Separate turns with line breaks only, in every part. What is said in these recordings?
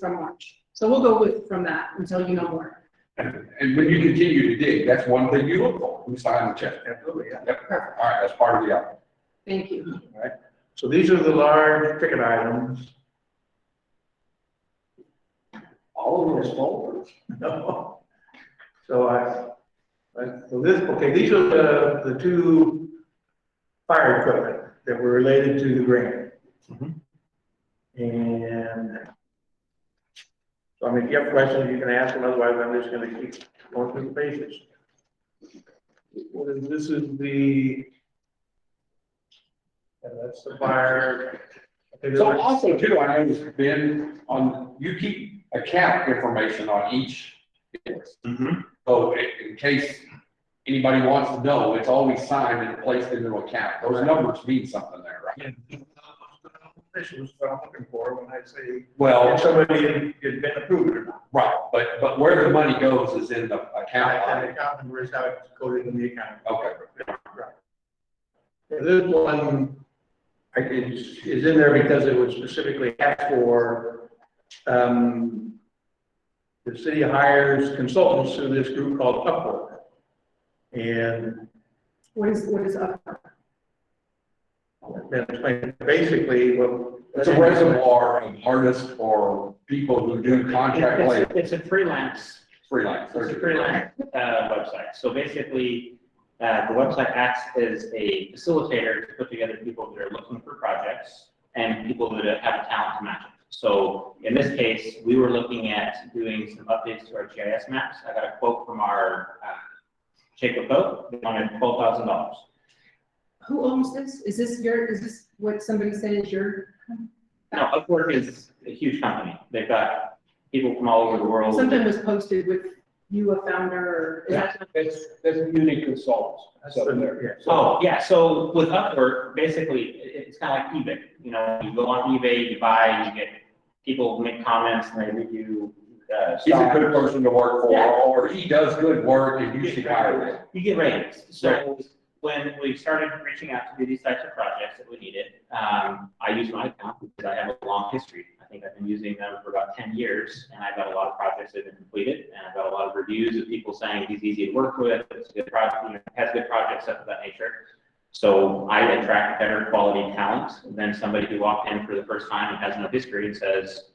from March. So we'll go with, from that until you know more.
And and when you continue to dig, that's one thing you look for, who signed the check.
Absolutely, yeah.
Yep, all right, that's part of the app.
Thank you.
So these are the large ticket items.
All of those folders.
No. So I, I, so this, okay, these are the, the two fire equipment that were related to the grant. Mm-hmm. And so I mean, if you have questions, you can ask them, otherwise I'm just gonna keep going through the pages. What is, this is the, and that's the fire. okay, there's
So
like-
also too, I noticed Ben, on, you keep account information on each. invoice. So i- in case anybody wants to know, it's always signed and placed into account. Those numbers mean something there, right?
Yeah. This is what I'm looking for when I say, if
Well,
somebody had been approved or not.
right, but, but where the money goes is in the account
And
line.
the account number is how it's coded in the account.
Okay.
Right. And This one, I, is, is in there because it was specifically asked for, um, the city hires consultants through this group called Upwork. And
What is, what is up?
then explain basically what.
It's a reservoir of artists or people who do contract
It's-
labor
It's a freelance,
freelance.
it's a freelance uh, website. So basically, uh, the website acts as a facilitator to put together people that are looking for projects and people that have a talent to match it. So in this case, we were looking at doing some updates to our GIS maps. I got a quote from our uh, Shaker Folk, they wanted twelve thousand dollars.
Who owns this? Is this your, is this what somebody said is your?
Now, Upwork is a huge company. They've got people from all over the world.
Something was posted with you, a founder, or is that
That's, that's unique consultants.
That's
up there.
the, yeah.
Oh, yeah, so with Upwork, basically, it, it's kind of like eBay, you know, you go on eBay, you buy, you get, people make comments and they review, uh,
He's a
stocks.
good person to work for,
Yeah.
or he does good work and you should hire him.
You get ratings, so when we started reaching out to do these types of projects that we needed, um, I use my account because I have a long history. I think I've been using them for about ten years, and I've got a lot of projects that have been completed, and I've got a lot of reviews of people saying he's easy to work with, it's a good project, you know, has good projects, stuff of that nature. So I attract better quality talent than somebody who walked in for the first time and has no history and says,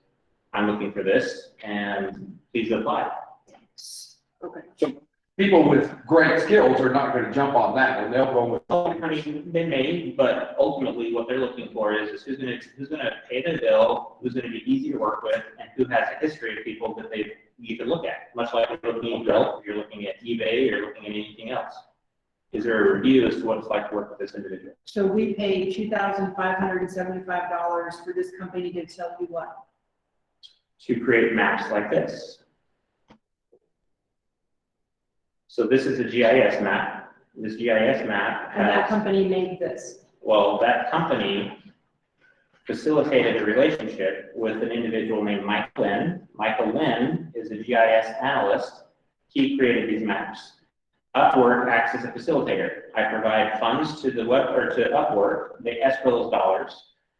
I'm looking for this, and please apply.
Okay.
People with great skills are not gonna jump on that and they'll go with,
Oh, I mean, they may, but ultimately what they're looking for is, is who's gonna, who's gonna pay the bill, who's gonna be easy to work with, and who has a history of people that they, you can look at, much like you're looking at Yelp, you're looking at eBay, you're looking at anything else. Is there a review as to what it's like to work with this individual?
So we pay two thousand five hundred and seventy-five dollars for this company to tell you what?
To create maps like this. So this is a GIS map, this GIS map
And that
has.
company made this.
Well, that company facilitated a relationship with an individual named Mike Lynn. Michael Lynn is a GIS analyst. He created these maps. Upwork acts as a facilitator. I provide funds to the web, or to Upwork, they escrow those dollars.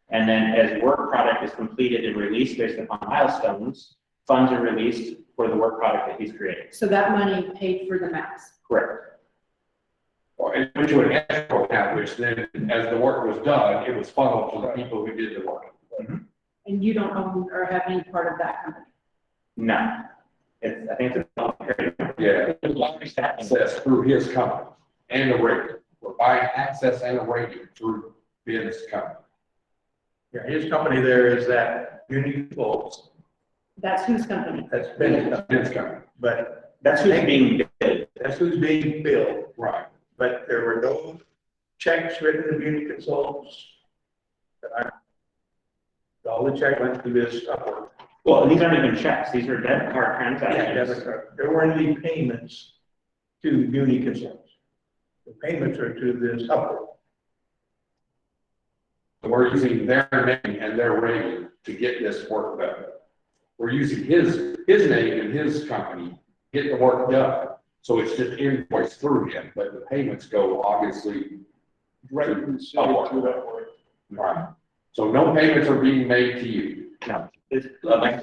And then as work product is completed and released based upon milestones, funds are released for the work product that he's created.
So that money paid for the maps.
Correct.
or into an escrow account, which then, as the work was done, it was funneled to the people who did the work.
And you don't own or have any part of that company.
No. It's, I think it's a.
Yeah, access through his company and the rating. We're buying access and a rating through Ben's company.
Yeah, his company there is that Unique Folks,
That's whose company?
that's Ben's
Ben's
company,
Ben's company,
but
That's who's being billed.
that's who's being billed.
right.
But there were no checks written to Unique Consultants. that I- All the check went through this Upwork.
Well, these aren't even checks, these are debit card
debit
transactions.
card. There weren't any payments to Unique Consultants. The payments are to this Upwork.
We're using their name and their rating to get this work done. We're using his, his name and his company, get the work done. So it's just invoiced through him, but the payments go obviously,
Right.
Upwork.
Upwork.
right? So no payments are being made to you.
This, uh, like